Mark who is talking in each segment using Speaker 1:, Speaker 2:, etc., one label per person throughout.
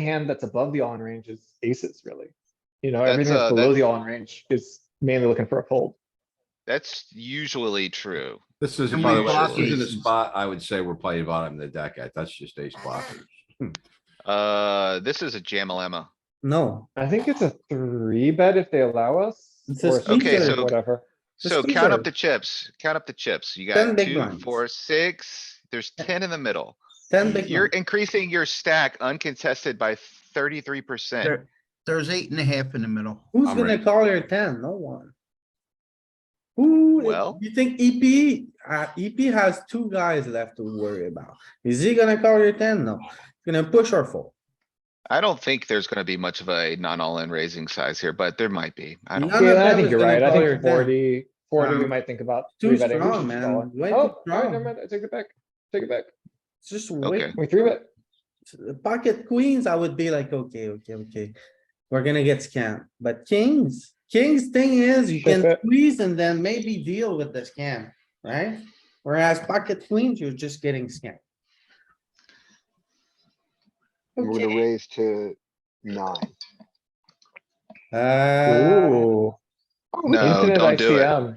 Speaker 1: hand that's above the all-in range is aces, really. You know,
Speaker 2: That's,
Speaker 1: everything that's
Speaker 2: uh,
Speaker 1: below
Speaker 2: that's-
Speaker 1: the all-in range is mainly looking for a fold.
Speaker 2: That's usually true.
Speaker 3: This is.
Speaker 2: How
Speaker 3: ace
Speaker 2: many
Speaker 3: blockers in a
Speaker 2: aces?
Speaker 3: spot, I would say we're playing bottom of the deck at. That's just ace blockers.
Speaker 2: Uh, this is a jam dilemma.
Speaker 4: No,
Speaker 1: I think it's a three bet if they allow us.
Speaker 4: It's a
Speaker 1: or
Speaker 4: squeezer.
Speaker 2: Okay,
Speaker 1: squeeze or
Speaker 2: so-
Speaker 1: Whatever.
Speaker 4: Just
Speaker 2: So
Speaker 4: squeeze
Speaker 2: count up
Speaker 4: it.
Speaker 2: the chips, count up the chips. You
Speaker 4: Ten
Speaker 2: got
Speaker 4: big
Speaker 2: two,
Speaker 4: ones.
Speaker 2: four, six. There's ten in the middle.
Speaker 4: ten big
Speaker 2: You're
Speaker 4: ones.
Speaker 2: increasing your stack uncontested by thirty-three percent.
Speaker 5: There- There's eight and a half in the middle.
Speaker 4: Who's
Speaker 3: I'm
Speaker 4: gonna
Speaker 3: ready.
Speaker 4: call your ten? No one. Who,
Speaker 2: Well-
Speaker 4: you think EP, uh, EP has two guys left to worry about. Is he gonna call your ten? No, He's gonna push or fold.
Speaker 2: I don't think there's gonna be much of a non-all-in raising size here, but there might be. I
Speaker 4: No,
Speaker 2: don't.
Speaker 4: None of
Speaker 1: Yeah, I
Speaker 4: them
Speaker 1: think
Speaker 4: is
Speaker 1: you're
Speaker 4: gonna
Speaker 1: right. I
Speaker 4: call your
Speaker 1: think
Speaker 4: ten.
Speaker 1: 40, 40, we
Speaker 4: Um,
Speaker 1: might think about.
Speaker 4: too
Speaker 1: three betting. We
Speaker 4: strong,
Speaker 1: should just
Speaker 4: man.
Speaker 1: call it.
Speaker 4: Way too
Speaker 1: Oh, alright,
Speaker 4: strong.
Speaker 1: never mind. I take it back. Take it back.
Speaker 4: It's Just wait,
Speaker 2: Okay.
Speaker 1: We three bet.
Speaker 4: pocket queens, I would be like, okay, okay, okay. We're gonna get scammed, but kings, kings thing is you can squeeze and then maybe deal with the scam, right? Whereas pocket queens, you're just getting scammed.
Speaker 6: We're gonna
Speaker 4: Okay,
Speaker 6: raise to nine.
Speaker 4: uh,
Speaker 1: Ooh.
Speaker 2: No,
Speaker 1: infinite
Speaker 2: don't do it.
Speaker 1: ICM.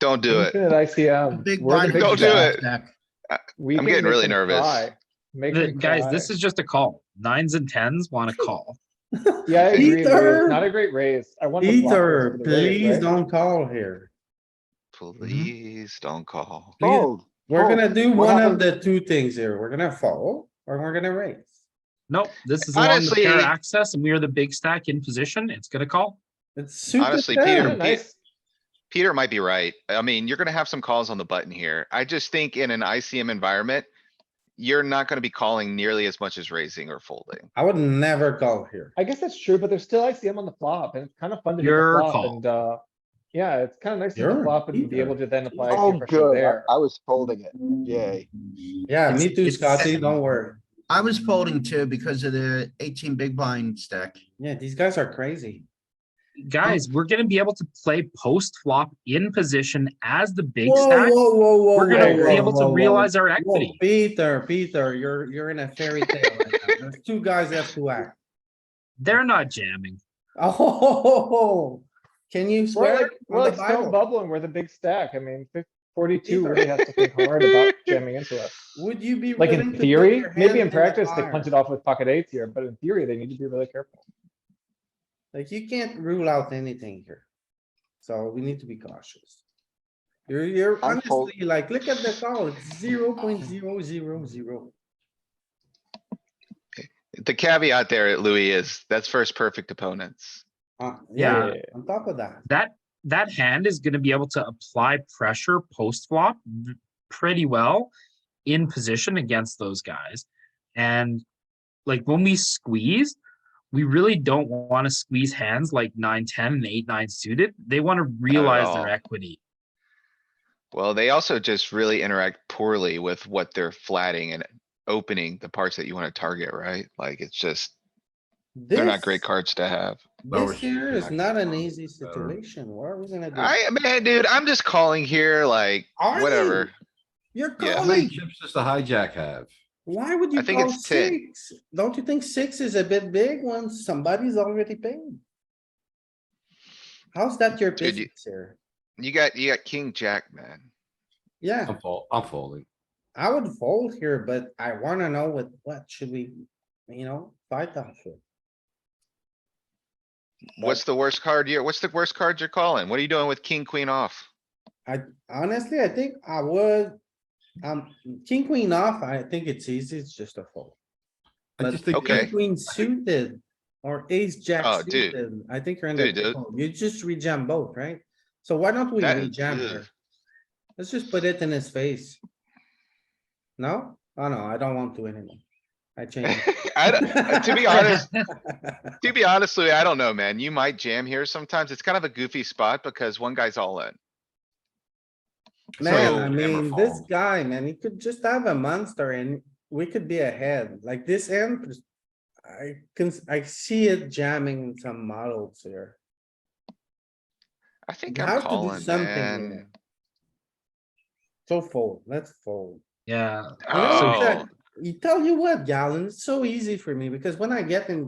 Speaker 2: Don't do it.
Speaker 1: Infinite
Speaker 5: A
Speaker 1: ICM.
Speaker 5: Big
Speaker 1: We're the
Speaker 5: blind.
Speaker 1: big
Speaker 2: Don't do
Speaker 1: blind.
Speaker 2: it.
Speaker 1: We
Speaker 2: I'm
Speaker 1: can
Speaker 2: getting
Speaker 1: make
Speaker 2: really
Speaker 1: them
Speaker 2: nervous.
Speaker 1: cry. Make
Speaker 7: Th-
Speaker 1: them
Speaker 7: Guys,
Speaker 1: cry.
Speaker 7: this is just a call. Nines and tens want to call.
Speaker 1: Yeah, I agree. Lou.
Speaker 4: Ether.
Speaker 1: It's Not a great raise. I want. the blockers
Speaker 4: Ether,
Speaker 1: for the raise,
Speaker 4: please
Speaker 1: right?
Speaker 4: don't call here.
Speaker 2: Mm-hmm. Please don't call.
Speaker 4: Please.
Speaker 6: Fold.
Speaker 4: We're
Speaker 1: Oh,
Speaker 6: Fold.
Speaker 4: gonna do
Speaker 6: What
Speaker 4: one of
Speaker 6: happened-
Speaker 4: the two things here. We're gonna fold or we're gonna raise.
Speaker 7: Nope, this is along the
Speaker 2: Honestly-
Speaker 7: pair access and we are the big stack in position. It's gonna call.
Speaker 4: It's super.
Speaker 2: Honestly,
Speaker 4: bad.
Speaker 2: Peter,
Speaker 1: Yeah, Nice.
Speaker 2: Peter might be right. I mean, you're gonna have some calls on the button here. I just think in an ICM environment, you're not gonna be calling nearly as much as raising or folding.
Speaker 4: I would never call here.
Speaker 1: I guess that's true, but there's still ICM on the flop and it's kind of fun to hit the
Speaker 7: Your
Speaker 1: flop
Speaker 7: call.
Speaker 1: and, uh, yeah, it's kind of nice to hit the
Speaker 4: Your
Speaker 1: flop and be
Speaker 4: Ether.
Speaker 1: able to then apply. a few
Speaker 6: Oh,
Speaker 1: pressure
Speaker 6: good. I-
Speaker 1: there.
Speaker 6: I was folding it. Yay.
Speaker 4: Yeah,
Speaker 7: It's-
Speaker 4: me too,
Speaker 7: it's-
Speaker 4: Scotty, don't worry.
Speaker 5: I was folding too because of the eighteen big blind stack.
Speaker 4: Yeah, these guys are crazy. Oh.
Speaker 7: Guys, we're gonna be able to play post flop in position as the big
Speaker 4: Whoa,
Speaker 7: stack.
Speaker 4: whoa, whoa, whoa,
Speaker 7: We're gonna
Speaker 4: whoa,
Speaker 7: be able
Speaker 4: whoa, whoa,
Speaker 7: to
Speaker 4: whoa.
Speaker 7: realize our
Speaker 4: Whoa,
Speaker 7: equity.
Speaker 4: Peter, Peter, you're, you're in a fairy tale. right now. There's two guys left to act.
Speaker 7: They're not jamming.
Speaker 4: Oh, ho, ho, ho, ho. Oh, can you
Speaker 1: We're
Speaker 4: swear
Speaker 1: like, we're
Speaker 4: on
Speaker 1: like
Speaker 4: the
Speaker 1: stone
Speaker 4: Bible?
Speaker 1: bubbling. We're the big stack. I mean, fif- forty-two
Speaker 4: Ether.
Speaker 1: really has to think hard about jamming into us.
Speaker 4: Would you be?
Speaker 1: Like in
Speaker 4: willing to put
Speaker 1: theory,
Speaker 4: your hand
Speaker 1: maybe in
Speaker 4: the
Speaker 1: practice, they
Speaker 4: fire?
Speaker 1: punch it off with pocket eights here, but in theory, they need to be really careful.
Speaker 4: Like you can't rule out anything here. So we need to be cautious. You're, you're
Speaker 6: I'm fold-
Speaker 4: honestly like, look at the call, it's zero point zero zero zero.
Speaker 2: The caveat there, Louis, is that's first perfect opponents.
Speaker 4: Uh,
Speaker 7: Yeah.
Speaker 4: yeah, on top of that.
Speaker 7: That, that hand is gonna be able to apply pressure post flop v- pretty well in position against those guys. And like when we squeeze, we really don't wanna squeeze hands like nine, ten and eight, nine suited. They wanna realize
Speaker 2: all.
Speaker 7: their equity.
Speaker 2: Well, they also just really interact poorly with what they're flatting and opening the parts that you wanna target, right? Like, it's just, they're not great
Speaker 4: This-
Speaker 2: cards to have.
Speaker 4: This here is not an easy
Speaker 3: Better.
Speaker 4: situation. What are we gonna do?
Speaker 2: I, man, dude, I'm just calling here, like,
Speaker 4: Are you?
Speaker 2: whatever.
Speaker 4: You're
Speaker 2: yeah.
Speaker 3: How many
Speaker 4: calling.
Speaker 3: chips does the hijack have?
Speaker 4: Why would you
Speaker 2: I think
Speaker 4: call
Speaker 2: it's 10.
Speaker 4: six? Don't you think six is a bit big when somebody's already paid? How's that your
Speaker 2: Dude, you-
Speaker 4: business here?
Speaker 2: You got, you got king, jack, man.
Speaker 4: Yeah.
Speaker 3: I'm fold, I'm folding.
Speaker 4: I would fold here, but I wanna know what, what should we, you know, fight off with?
Speaker 2: What's the worst card you're, what's the worst card you're calling? What are you doing with king, queen off?
Speaker 4: I honestly, I think I would, um, king, queen off, I think it's easy, it's just a fold.
Speaker 3: I
Speaker 4: But-
Speaker 3: just think.
Speaker 2: Okay.
Speaker 4: King, Queen suited or ace jack
Speaker 2: Oh, dude.
Speaker 4: suited, I think you're in the,
Speaker 2: Dude, dude.
Speaker 4: trouble. you just rejam both, right? So why don't we
Speaker 2: That-
Speaker 4: rejam
Speaker 2: ugh.
Speaker 4: here? Let's just put it in his face. No? Oh no, I don't want to anymore. I changed.
Speaker 2: I, don't- to be honest, to be honest, Louis, I don't know, man. You might jam here sometimes. It's kind of a goofy spot because one guy's all in.
Speaker 4: Man,
Speaker 2: So-
Speaker 4: I
Speaker 3: Never
Speaker 4: mean, this
Speaker 3: fold.
Speaker 4: guy, man, he could just have a monster and we could be ahead, like this end. I can, I see it jamming in some models here.
Speaker 2: I think
Speaker 4: You
Speaker 2: I'm
Speaker 4: have to do
Speaker 2: calling,
Speaker 4: something
Speaker 2: man.
Speaker 4: here. So fold, let's fold.
Speaker 7: Yeah,
Speaker 4: Well,
Speaker 2: Oh,
Speaker 4: that's okay. you tell you what, Galen, it's so easy for me because when I get in